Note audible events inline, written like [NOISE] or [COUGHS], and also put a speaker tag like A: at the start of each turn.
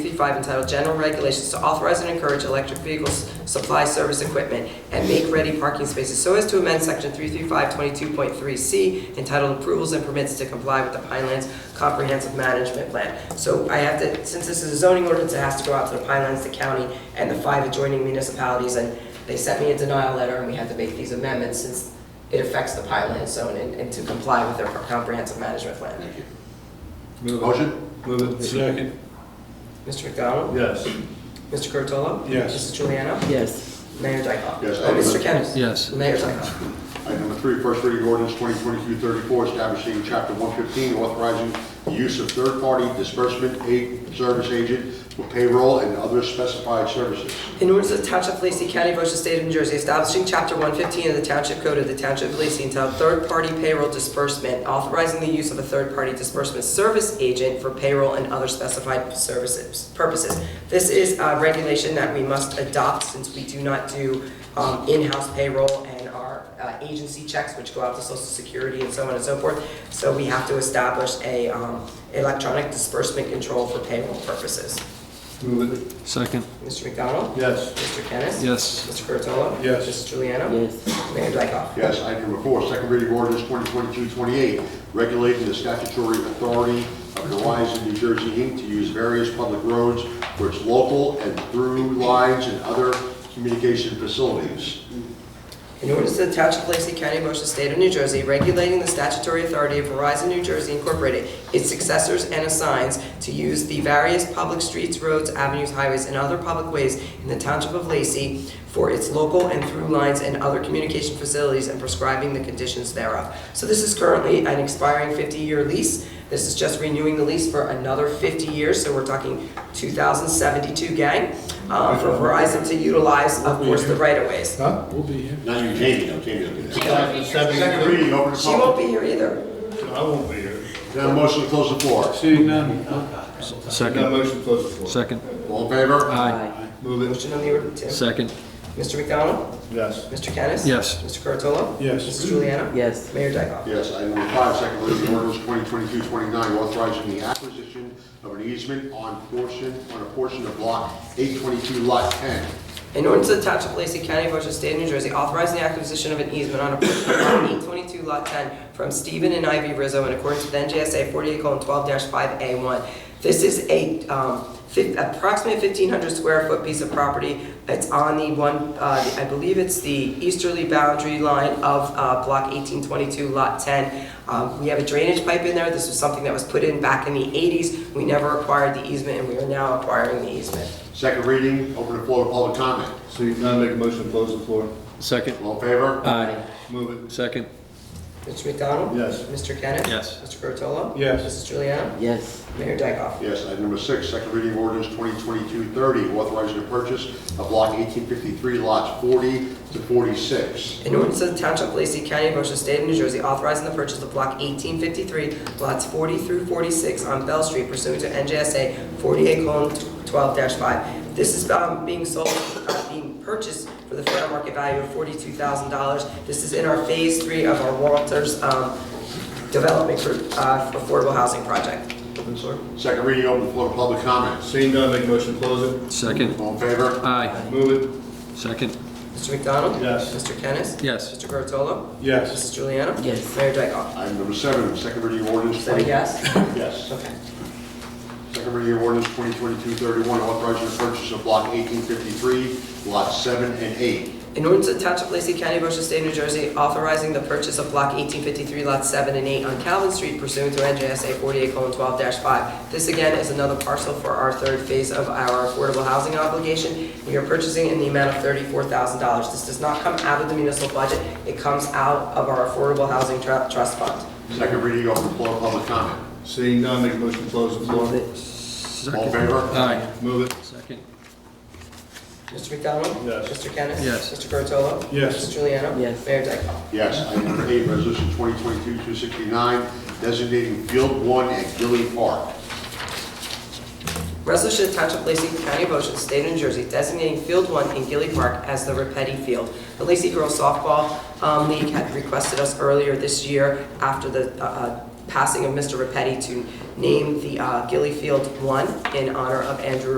A: 55 entitled General Regulations to authorize and encourage electric vehicles, supply service equipment, and make ready parking spaces so as to amend section 33522.3C entitled Approvals and Permits to Comply with the Pinelands Comprehensive Management Plan. So I have to, since this is a zoning ordinance, it has to go out to the Pinelands, the county, and the five adjoining municipalities, and they sent me a denial letter, and we had to make these amendments since it affects the Pinelands zone and and to comply with their comprehensive management plan.
B: Thank you.
C: Move it.
B: Motion?
C: Move it.
D: Second.
A: Mr. McDonald?
C: Yes.
A: Mr. Curatolo?
D: Yes.
A: Mrs. Juliana?
E: yes,
A: Mayor Dyckoff?
B: Yes.
A: Oh, Mr. Kennis?
C: Yes.
A: Mayor Dyckoff?
B: Item number three, first reading ordinance 2022-34, establishing Chapter 115, authorizing the use of third-party disbursement aid service agent for payroll and other specified services.
A: In order to the Township of Lacey County, Ocean State of New Jersey, establishing Chapter 115 of the Township Code of the Township of Lacey entitled Third Party Payroll Disbursement, authorizing the use of a third-party disbursement service agent for payroll and other specified services, purposes. This is a regulation that we must adopt since we do not do um, in-house payroll and our uh, agency checks, which go out to Social Security and so on and so forth. So we have to establish a um, electronic disbursement control for payroll purposes.
C: Move it. Second.
A: Mr. McDonald?
C: Yes.
A: Mr. Kennis?
C: Yes.
A: Mr. Curatolo?
D: Yes.
A: Mrs. Juliana?
E: yes,
A: Mayor Dyckoff?
B: Yes, item number four, second reading ordinance 2022-28, regulating the statutory authority of Horizon New Jersey Inc. to use various public roads for its local and through lines and other communication facilities.
A: In order to the Township of Lacey County, Motion State of New Jersey, regulating the statutory authority of Verizon New Jersey Incorporated, its successors and assigns to use the various public streets, roads, avenues, highways, and other public ways in the Township of Lacey for its local and through lines and other communication facilities and prescribing the conditions thereof. So this is currently an expiring 50-year lease. This is just renewing the lease for another 50 years, so we're talking 2072, gang, uh, for Verizon to utilize, of course, the right-of-ways.
D: Huh? We'll be here.
B: Not you, Jamie, no, Jamie will do that. Second
D: Second.
B: reading, open the
A: She won't
B: public.
A: be here either.
D: I won't be here.
B: Then a motion to close the floor.
D: Seeing none.
C: Second.
D: motion closes the floor.
C: Second.
B: All in favor?
C: Aye. Move
A: Motion on the order, Tim.
C: Second.
A: Mr. McDonald?
D: Yes.
A: Mr. Kennis?
C: Yes.
A: Mr. Curatolo?
D: Yes.
A: Mrs. Juliana?
E: yes,
A: Mayor Dyckoff?
B: Yes, item number five, second reading ordinance 2022-29, authorizing the acquisition of an easement on portion, on a portion of block 822, lot 10.
A: In order to the Township of Lacey County, Ocean State of New Jersey, authorizing the acquisition of an easement on a portion of lot [COUGHS] 822, lot 10, from Stephen and Ivy Rizzo in accordance with NJSA 48:12-5A1. This is a um, fif- approximately 1,500 square foot piece of property. It's on the one, uh, I believe it's the easterly boundary line of uh, block 1822, lot 10. Um, We have a drainage pipe in there. This was something that was put in back in the 80s. We never acquired the easement, and we are now acquiring the easement.
B: Second reading, open the floor to public comment.
D: Seeing none, make a motion to close the floor.
C: Second.
B: All in favor?
C: Aye.
D: Move
C: Second.
A: Mr. McDonald?
D: Yes.
A: Mr. Kennis?
C: Yes.
A: Mr. Curatolo?
D: Yes.
A: Mrs. Juliana?
E: yes,
A: Mayor Dyckoff?
B: Yes, item number six, second reading ordinance 2022-30, authorizing the purchase of block 1853, lots 40 to 46.
A: In order to the Township of Lacey County, Ocean State of New Jersey, authorizing the purchase of block 1853, lots 40 through 46 on Bell Street pursuant to NJSA 48:12-5. This is um, being sold, uh, being purchased for the fair market value of $42,000. This is in our Phase 3 of our Walters um, Development Group uh, Affordable Housing Project.
B: Second reading, open the floor to public
D: it.
B: comments.
D: Seeing none, make a motion to close
C: Second.
B: All in favor?
C: Aye.
D: it. Move
C: Second.
A: Mr. McDonald?
D: Yes.
A: Mr. Kennis?
C: Yes.
A: Mr. Curatolo?
D: it. Yes.
A: Mrs. Juliana?
E: Yes.
A: Mayor Dyckoff?
B: Item number seven, second reading ordinance.
A: Is that a
B: 20
A: yes?
B: Yes.
A: Okay.
B: Second reading ordinance 2022-31, authorizing the purchase of block 1853, lots 7 and 8.
A: In order to the Township of Lacey County, Ocean State, New Jersey, authorizing the purchase of block 1853, lots 7 and 8 on Calvin Street pursuant to NJSA 48:12-5. This again is another parcel for our third phase of our affordable housing obligation. We are purchasing in the amount of $34,000. This does not come out of the municipal budget. It comes out of our Affordable Housing Tru- Trust Fund.
B: Second reading, open the floor to public comment.
D: Seeing none, make a motion to close the
E: move
D: floor.
E: it,
B: All in
C: Second.
B: favor?
C: Aye.
D: Move it.
C: Second.
A: Mr. McDonald?
D: Yes.
A: Mr. Kennis?
C: Yes.
A: Mr. Curatolo?
D: Yes.
A: Mrs. Juliana?
E: Yes.
A: Mayor Dyckoff?
B: Yes. Item number eight, resolution 2022-269, designating Field 1 at Gilly Park.
A: Resolution to Township of Lacey County, Ocean State of New Jersey, designating Field One in Gilly Park as the Repetti Field. The Lacey Girls Softball um, League had requested us earlier this year, after the uh, uh, passing of Mr. Repetti, to name the uh, Gilly Field One in honor of Andrew